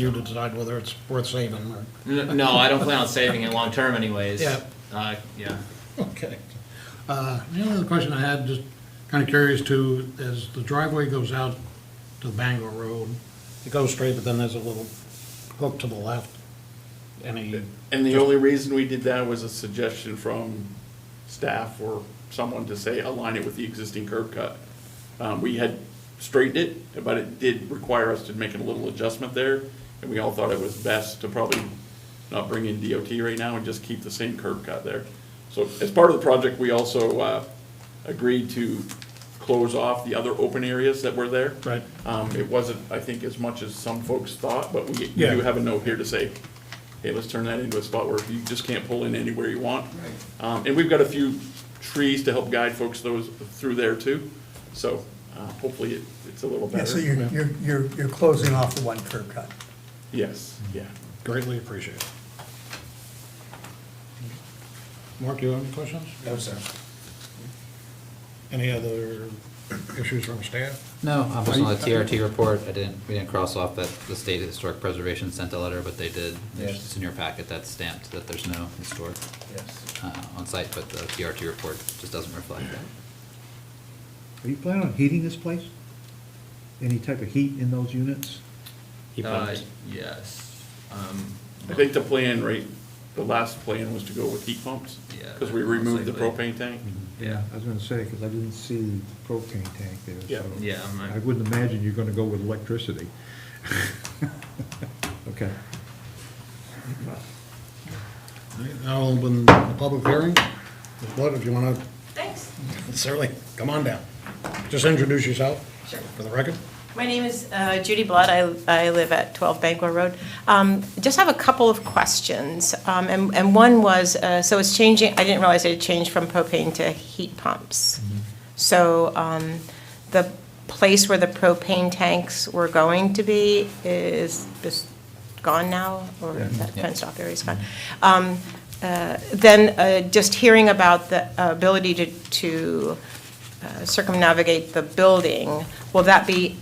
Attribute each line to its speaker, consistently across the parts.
Speaker 1: you to decide whether it's worth saving or,
Speaker 2: N- No, I don't plan on saving it long-term anyways.
Speaker 1: Yeah.
Speaker 2: Uh, yeah.
Speaker 1: okay. Uh, The only other question I had, just kind of curious too, is the driveway goes out to Bangor Road. It goes straight, but then there's a little hook to the left. Any,
Speaker 3: And the only reason we did that was a suggestion from staff or someone to say align it with the existing curb cut. Um, we had straightened it, but it did require us to make a little adjustment there, and we all thought it was best to probably not bring in DOT right now and just keep the same curb cut there. So as part of the project, we also, uh, agreed to close off the other open areas that were there.
Speaker 1: Right.
Speaker 3: Um, it wasn't, I think, as much as some folks thought, but we, we
Speaker 1: Yeah.
Speaker 3: do have a note here to say, hey, let's turn that into a spot where you just can't pull in anywhere you want. Um, and we've got a few trees to help guide folks those, through there too, so, uh, hopefully it, it's a little
Speaker 4: Yeah, so
Speaker 3: better.
Speaker 4: you're, you're, you're, you're closing off the one curb cut.
Speaker 3: Yes, yeah.
Speaker 1: greatly appreciate it. Mark, you have any questions?
Speaker 5: No, sir.
Speaker 1: Any other issues from staff?
Speaker 6: No, I wasn't on the
Speaker 1: Are you-
Speaker 6: TRT report, I didn't, we didn't cross off that the State Historic Preservation sent a letter, but they did,
Speaker 5: Yes.
Speaker 6: it's in your packet, that's stamped, that there's no historic
Speaker 5: Yes.
Speaker 6: uh, on site, but the TRT report just doesn't reflect that.
Speaker 7: Are you planning on heating this place? Any type of heat in those units?
Speaker 2: Uh, yes. Um,
Speaker 3: I think the plan, right, the last plan was to go with heat pumps.
Speaker 2: Yeah, Mm-hmm.
Speaker 3: Cause we
Speaker 2: most
Speaker 3: removed the
Speaker 2: likely.
Speaker 3: propane tank.
Speaker 2: Yeah.
Speaker 7: I was gonna say, because I didn't see the propane tank there,
Speaker 3: Yeah.
Speaker 7: so.
Speaker 2: Yeah, I'm not-
Speaker 7: I wouldn't imagine you're gonna go with electricity. Okay.
Speaker 1: All right, Now I'll open the public hearing. Ms. Blood, if you want to
Speaker 8: Thanks.
Speaker 1: Certainly, come on down. Just introduce yourself
Speaker 8: Sure.
Speaker 1: for the record.
Speaker 8: My name is uh, Judy Blood. I I live at 12 Bangor Road. Um, Just have a couple of questions. Um, And and one was, uh, so it's changing, I didn't realize it had changed from propane to heat pumps. So um, the place where the propane tanks were going to be is is gone now? Or
Speaker 7: Yeah.
Speaker 8: that
Speaker 6: Yeah.
Speaker 8: fenced off area is gone? Um, uh, Then uh, just hearing about the uh, ability to to uh, circumnavigate the building, will that be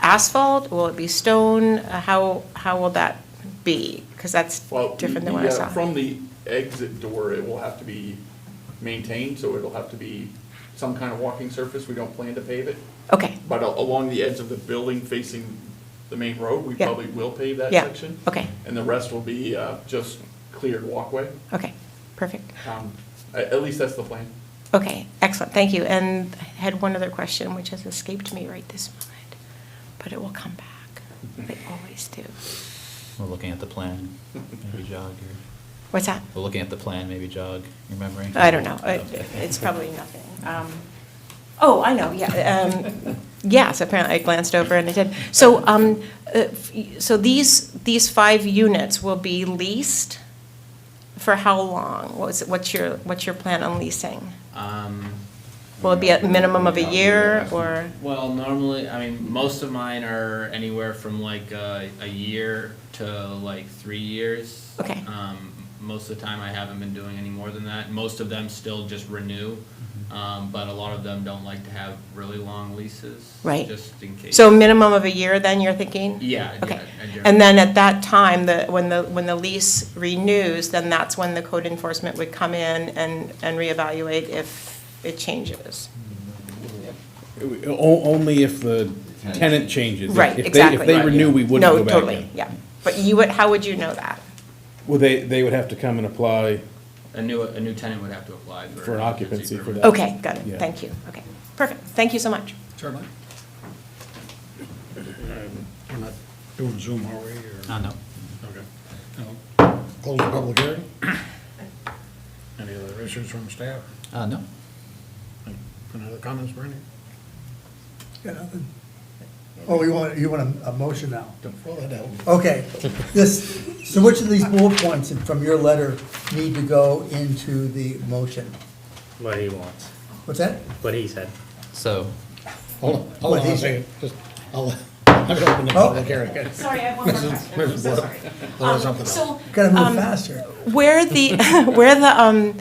Speaker 8: asphalt? Will it be stone? Uh, How, how will that be? Because that's
Speaker 3: Well,
Speaker 8: different than what I
Speaker 3: the, uh,
Speaker 8: saw.
Speaker 3: From the exit door, it will have to be maintained, so it'll have to be some kind of walking surface. We don't plan to pave it.
Speaker 8: Okay,
Speaker 3: But a- along the edge of the building facing the main road, we
Speaker 8: Yeah.
Speaker 3: probably will pave that
Speaker 8: Yeah,
Speaker 3: section.
Speaker 8: okay.
Speaker 3: And the rest will be uh, just cleared walkway.
Speaker 8: okay, perfect.
Speaker 3: Um, a- At least that's the plan.
Speaker 8: Okay, excellent, thank you. And I had one other question, which has escaped me right this moment, but it will come back. They always do.
Speaker 6: We're looking at the plan, maybe jog your,
Speaker 8: What's that?
Speaker 6: we're looking at the plan, maybe jog your memory.
Speaker 8: I don't know. It-
Speaker 6: Okay.
Speaker 8: It's probably nothing. Um, Oh, I know, yeah. um, Yes, apparently I glanced over and I did. So, um, uh, f- so these, these five units will be leased for how long? What's, what's your, what's your plan on leasing?
Speaker 2: Um,
Speaker 8: Will it be a minimum of a year or?
Speaker 2: well, normally, I mean, most of mine are anywhere from like uh, a year to like three years.
Speaker 8: Okay.
Speaker 2: Um, most of the time, I haven't been doing any more than that. Most of them still just renew,
Speaker 8: Mm-hmm.
Speaker 2: um, but a lot of them don't like to have really long leases.
Speaker 8: Right.
Speaker 2: Just in case.
Speaker 8: So minimum of a year then, you're thinking?
Speaker 2: Yeah,
Speaker 8: Okay.
Speaker 2: yeah, a year.
Speaker 8: And then at that time, the, when the, when the lease renews, then that's when the code enforcement would come in and, and reevaluate if it changes.
Speaker 9: O- Only if the tenant changes.
Speaker 8: Right,
Speaker 9: If they-
Speaker 8: exactly.
Speaker 9: If they
Speaker 8: Right,
Speaker 9: renew,
Speaker 2: yeah.
Speaker 9: we wouldn't go
Speaker 8: No,
Speaker 9: back
Speaker 8: totally,
Speaker 9: in.
Speaker 8: yeah. But you would, how would you know that?
Speaker 9: Well, they, they would have to come and apply.
Speaker 2: A new, a new tenant would have to apply for.
Speaker 9: For an occupancy for
Speaker 2: permit.
Speaker 9: that.
Speaker 8: Okay, got it,
Speaker 9: Yeah.
Speaker 8: thank you, okay. Perfect, thank you so much.
Speaker 1: Certainly. We're not doing Zoom, are we? or-
Speaker 6: Uh, no.
Speaker 1: Okay. Now, Close the public hearing. Any other issues from staff?
Speaker 6: Uh, no.
Speaker 1: Any other comments, Bernie?
Speaker 4: You know, and- Oh, you want, you want a, a motion now?
Speaker 1: Don't throw that out.
Speaker 4: Okay, this, so which of these bullet points in- from your letter need to go into the motion?
Speaker 10: what he wants,
Speaker 4: What's that?
Speaker 10: what he said.
Speaker 6: So,
Speaker 1: Hold on, hold on a second. Just, I'll, I've opened the
Speaker 4: Oh.
Speaker 1: public hearing.
Speaker 8: Sorry, I have one more question, I'm so sorry. Um,
Speaker 1: Well, there's something
Speaker 8: So,
Speaker 4: Gotta move
Speaker 8: um,
Speaker 4: faster.
Speaker 8: where the, where the, um,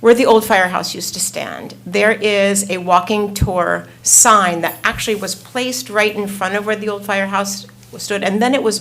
Speaker 8: where the old firehouse used to stand, there is a walking tour sign that actually was placed right in front of where the old firehouse stood, and then it was